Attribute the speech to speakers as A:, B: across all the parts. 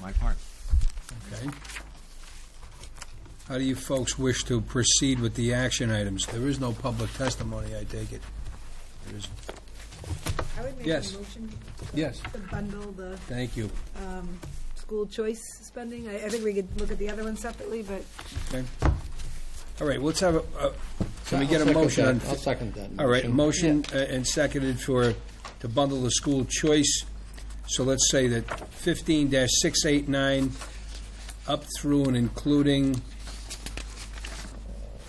A: my part.
B: Okay. How do you folks wish to proceed with the action items? There is no public testimony, I take it. There is,
C: I would make a
B: Yes.
C: motion
B: yes,
C: to bundle the
B: thank you.
C: um, school choice spending. I I think we could look at the other one separately, but
B: Okay. All right, let's have a, a- can we
D: I'll
B: get a
D: second
B: motion on?
D: that. I'll second that.
B: All right,
D: motion.
B: motion uh, and seconded for, to bundle the school choice. So let's say that fifteen six eight nine up through and including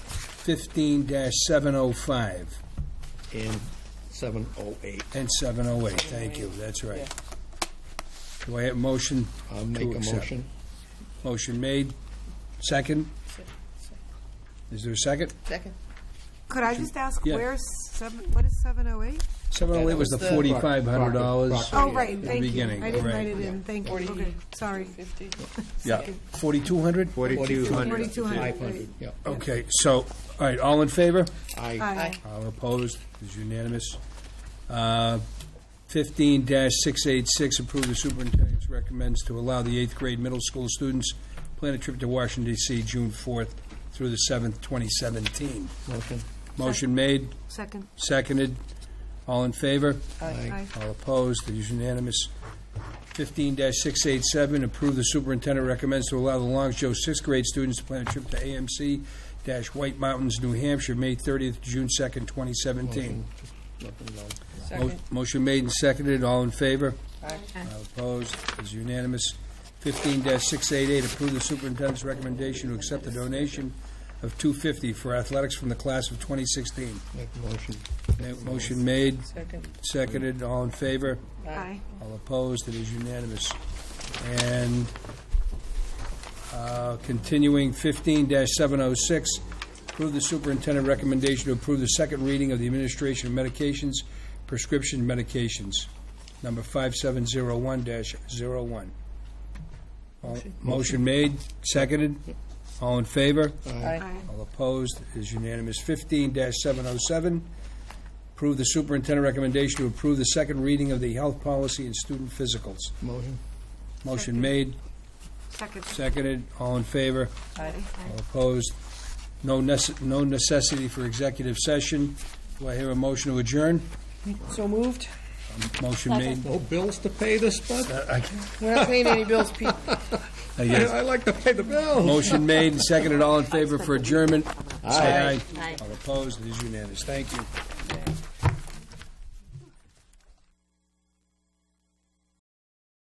B: fifteen seven oh five
D: And seven oh eight.
B: and seven oh eight. Thank you, that's right. Do I have motion?
D: I'll
B: to
D: make a
B: accept?
D: motion.
B: Motion made. Second? Is there a second?
E: Second.
C: could I just ask
B: Yeah.
C: where's seven, what is 708?
B: Seven oh eight was the
E: That was the-
B: forty-five hundred dollars.
D: Rocket,
C: Oh, right,
B: the
C: thank you.
B: beginning,
C: I didn't
B: right.
C: write it in, thank you. Okay, sorry.
E: Fifty.
B: Yeah, forty-two hundred?
A: Forty-two hundred.
C: 4,200.
D: Five hundred, yeah.
B: Okay, so, all right, all in favor?
D: I,
C: Aye.
B: All opposed, is unanimous. Uh, Fifteen six eight six, approve the superintendent's recommends to allow the eighth grade middle school students plan a trip to Washington DC, June fourth through the seventh, twenty seventeen.
D: motion,
B: Motion made,
C: Second.
B: seconded, all in favor?
C: Aye.
B: All opposed, it is unanimous. Fifteen six eight seven, approve the superintendent recommends to allow the Long Joe sixth grade students to plan a trip to AMC dash White Mountains, New Hampshire, May thirtieth, June second, twenty seventeen.
D: nothing, no.
E: Second.
B: Motion made and seconded, all in favor?
E: Aye.
B: All opposed, it is unanimous. Fifteen six eight eight, approve the superintendent's recommendation to accept the donation of two fifty for athletics from the class of twenty sixteen.
D: Make a motion.
B: Motion made,
E: Second.
B: seconded, all in favor?
C: Aye.
B: All opposed, it is unanimous. And uh, continuing, 15-706, approve the superintendent recommendation to approve the second reading of the administration of medications, prescription medications, number 5701-01. All- Motion made, seconded, all in favor?
E: Aye.
C: Aye.
B: All opposed, it is unanimous. Fifteen seven oh seven, approve the superintendent recommendation to approve the second reading of the health policy and student physicals.
D: Motion,
B: Motion made,
C: Second.
B: seconded, all in favor,
E: Aye.
B: all opposed. No necess, no necessity for executive session. Do I hear a motion to adjourn?
E: So moved?
B: Motion made.
D: no bills to pay this month?
E: We're not paying any bills, Pete.
B: Uh,
D: I
B: yes.
D: I like to pay the bills.
B: Motion made, and seconded, all in favor for adjournment. Say
D: Aye.
B: All opposed, it is unanimous. Thank you.